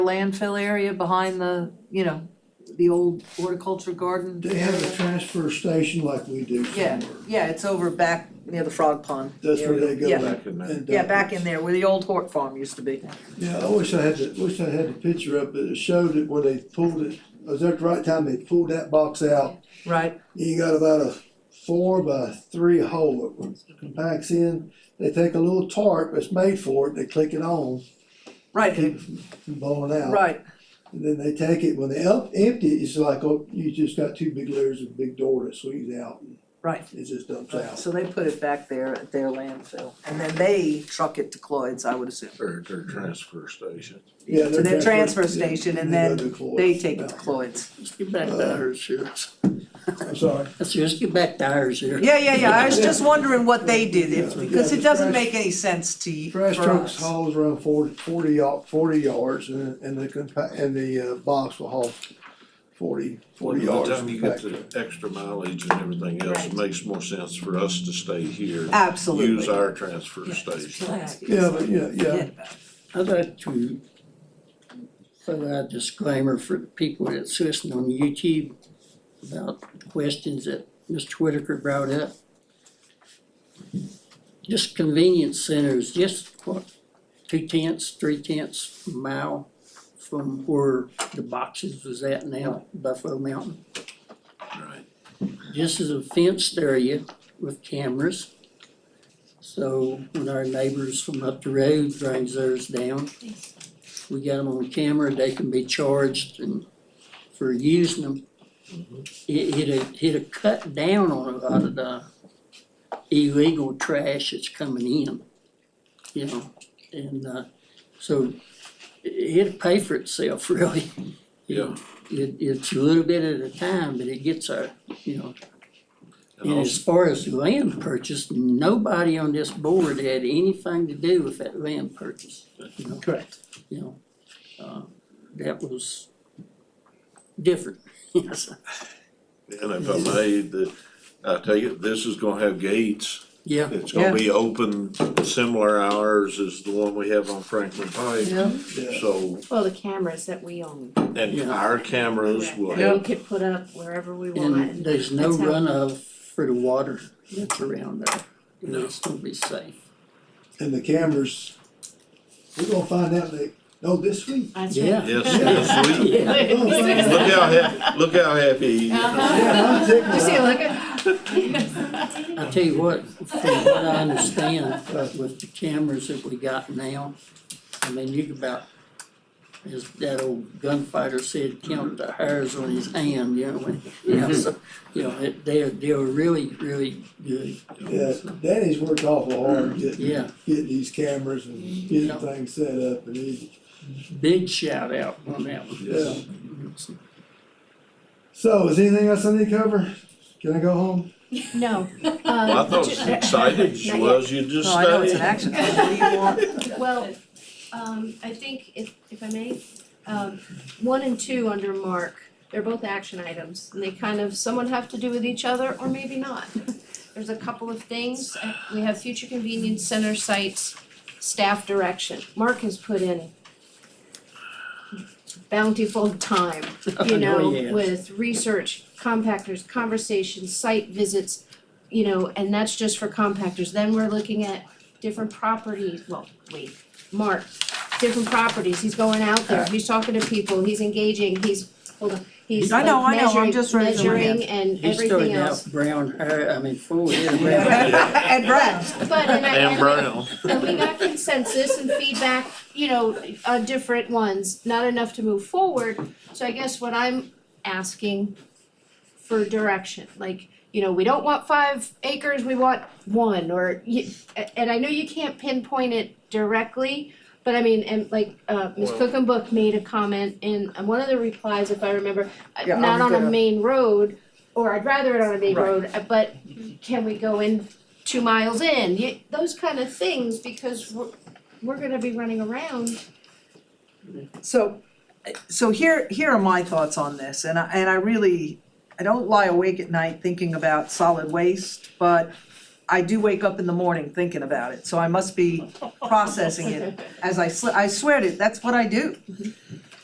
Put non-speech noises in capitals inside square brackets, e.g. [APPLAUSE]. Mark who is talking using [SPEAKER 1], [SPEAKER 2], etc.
[SPEAKER 1] landfill area behind the, you know, the old horticulture garden.
[SPEAKER 2] They have a transfer station like we do
[SPEAKER 1] Yeah,
[SPEAKER 2] somewhere.
[SPEAKER 1] yeah, it's over back near the frog pond.
[SPEAKER 2] That's where they
[SPEAKER 1] area.
[SPEAKER 2] go.
[SPEAKER 1] Yeah.
[SPEAKER 2] back
[SPEAKER 3] in there.
[SPEAKER 2] and dump
[SPEAKER 1] Yeah, back
[SPEAKER 2] it.
[SPEAKER 1] in there where the old hort farm used to be.
[SPEAKER 2] Yeah, I wish I had the, wish I had the picture up, but it showed it where they pulled it, it was at the right time, they pulled that box out.
[SPEAKER 1] Right.
[SPEAKER 2] You got about a four by three hole that compacts in, they take a little tarp that's made for it, they click it on,
[SPEAKER 1] Right,
[SPEAKER 2] keep
[SPEAKER 1] it-
[SPEAKER 2] it from blowing out.
[SPEAKER 1] right,
[SPEAKER 2] And then they take it, when they up, empty it, it's like, oh, you just got two big layers of big door that swings out, and
[SPEAKER 1] right.
[SPEAKER 2] it just dumps
[SPEAKER 1] Right,
[SPEAKER 2] out.
[SPEAKER 1] So they put it back there at their landfill and then they truck it to Cloyd's, I would assume.
[SPEAKER 3] Or their transfer station.
[SPEAKER 2] Yeah,
[SPEAKER 1] To their transfer station and
[SPEAKER 2] they go
[SPEAKER 1] then
[SPEAKER 2] to Cloyd's.
[SPEAKER 1] they take it to Cloyd's.
[SPEAKER 4] Let's get back to
[SPEAKER 2] Uh,
[SPEAKER 4] ours here.
[SPEAKER 1] [LAUGHS]
[SPEAKER 2] I'm sorry.
[SPEAKER 4] Let's just get back to ours here.
[SPEAKER 1] Yeah, yeah, yeah, I was just wondering what they did, if-
[SPEAKER 2] Yeah.
[SPEAKER 1] because it doesn't make any sense to you, for
[SPEAKER 2] Trash trucks
[SPEAKER 1] us.
[SPEAKER 2] hauls around 40 40 yard, forty yards and, and the compa- and the uh, box will haul forty, forty
[SPEAKER 3] By
[SPEAKER 2] yards.
[SPEAKER 3] the time you get the
[SPEAKER 2] back.
[SPEAKER 3] extra mileage and everything else, it makes more sense for us to stay here.
[SPEAKER 1] Absolutely.
[SPEAKER 3] Use our transfer station.
[SPEAKER 2] Yeah, but yeah, yeah,
[SPEAKER 1] Forget about it.
[SPEAKER 4] I'd like to put out a disclaimer for the people that's listening on YouTube about the questions that Mr. Whitaker brought up. Just convenience centers, just what, two tenths, three tenths mile from where the boxes was at now, Buffalo Mountain.
[SPEAKER 3] Right.
[SPEAKER 4] This is a fenced area with cameras. So when our neighbors from up the road brings theirs down, we got them on camera, they can be charged and for using them. It, it'd, it'd cut down on a lot of the illegal trash that's coming in, you know? And, uh, so it- it'd pay for itself [LAUGHS] really.
[SPEAKER 3] Yeah.
[SPEAKER 4] It, it's a little bit at a time, but it gets our, you know,
[SPEAKER 3] And
[SPEAKER 4] and as
[SPEAKER 3] also,
[SPEAKER 4] far as land purchase, nobody on this board had anything to do with that land purchase, you know,
[SPEAKER 1] Correct.
[SPEAKER 4] you know. Uh, That was different, [LAUGHS] yes,
[SPEAKER 3] and if I may, the, I tell you, this is gonna have gates.
[SPEAKER 4] yeah,
[SPEAKER 3] It's gonna be open similar hours as the one we have on Franklin Pike.
[SPEAKER 4] yeah,
[SPEAKER 2] yeah.
[SPEAKER 3] So,
[SPEAKER 5] Well, the cameras that we own.
[SPEAKER 3] and
[SPEAKER 4] Yeah.
[SPEAKER 3] our cameras will
[SPEAKER 5] That we
[SPEAKER 3] have,
[SPEAKER 5] could put up wherever we
[SPEAKER 4] and
[SPEAKER 5] want.
[SPEAKER 4] there's no
[SPEAKER 5] That's how-
[SPEAKER 4] runoff for the water that's around there, you know, it's gonna be safe.
[SPEAKER 2] And the cameras, we're gonna find out they, no, this
[SPEAKER 1] [LAUGHS]
[SPEAKER 2] week.
[SPEAKER 5] That's
[SPEAKER 4] Yeah.
[SPEAKER 3] [LAUGHS]
[SPEAKER 5] right.
[SPEAKER 3] yes, yes, we,
[SPEAKER 4] Yeah.
[SPEAKER 3] look how happy, look how happy he is.
[SPEAKER 2] Yeah, I'm tickled.
[SPEAKER 5] uh,
[SPEAKER 4] I tell you what, from what I understand, uh, with the cameras that we got now, I mean, you could about, as that old gunfighter said, count the hairs on his hand, you know, when, you know, so, you know, it- they're, they're really, really good.
[SPEAKER 2] Yeah, Danny's worked awful hard getting,
[SPEAKER 4] Yeah,
[SPEAKER 2] getting these cameras and getting
[SPEAKER 4] Yeah.
[SPEAKER 2] things set up and he,
[SPEAKER 4] big shout out on that one.
[SPEAKER 2] yeah. So is anything else I need to cover? Can I go home?
[SPEAKER 5] No. Um,
[SPEAKER 3] Well, I thought as excited as you was, you just
[SPEAKER 1] No, I know it's an
[SPEAKER 3] stayed.
[SPEAKER 1] action, item. what do you want?
[SPEAKER 5] Well, um, I think if, if I may, um, one and two under Mark, they're both action items, and they kind of, somewhat have to do with each other, or
[SPEAKER 4] [LAUGHS]
[SPEAKER 5] maybe not. There's a couple of things, Uh, we have future convenience center sites, staff direction, Mark has put in bountiful time, you
[SPEAKER 4] [LAUGHS] Oh,
[SPEAKER 5] know,
[SPEAKER 4] yes.
[SPEAKER 5] with research, compactors, conversations, site visits, you know, and that's just for compactors, then we're looking at different properties, well, wait, Mark, different properties, he's going out there, he's talking to people, he's engaging, he's, hold on, he's
[SPEAKER 1] I
[SPEAKER 5] like
[SPEAKER 1] know, I know, I'm
[SPEAKER 5] measuring,
[SPEAKER 1] just raising my hand.
[SPEAKER 5] measuring and
[SPEAKER 4] He
[SPEAKER 5] everything
[SPEAKER 4] started out
[SPEAKER 5] else.
[SPEAKER 4] brown hair, I mean, full head of
[SPEAKER 5] [LAUGHS]
[SPEAKER 4] brown hair.
[SPEAKER 1] And Brad,
[SPEAKER 5] But and I-
[SPEAKER 3] And
[SPEAKER 5] and I-
[SPEAKER 3] Brown.
[SPEAKER 5] and we got consensus and feedback, you know, on different ones, not enough to move forward. So I guess what I'm asking for direction, like, you know, we don't want five acres, we want one, or you, a- and I know you can't pinpoint it directly, but I mean, and like, uh, Ms.
[SPEAKER 3] Well-
[SPEAKER 5] Cook and Book made a comment in, on one of the replies, if I remember, uh,
[SPEAKER 1] Yeah, I
[SPEAKER 5] not
[SPEAKER 1] was
[SPEAKER 5] on a
[SPEAKER 1] gonna-
[SPEAKER 5] main road, or I'd rather it on a main
[SPEAKER 1] Right.
[SPEAKER 5] road, uh, but can we go in two miles in, you, those kind of things, because we're, we're gonna be running around.
[SPEAKER 1] so, so here, here are my thoughts on this, and I, and I really, I don't lie awake at night thinking about solid waste, but I do wake up in the morning thinking about it, so I must be processing it as I sl- I swear to, that's what I do.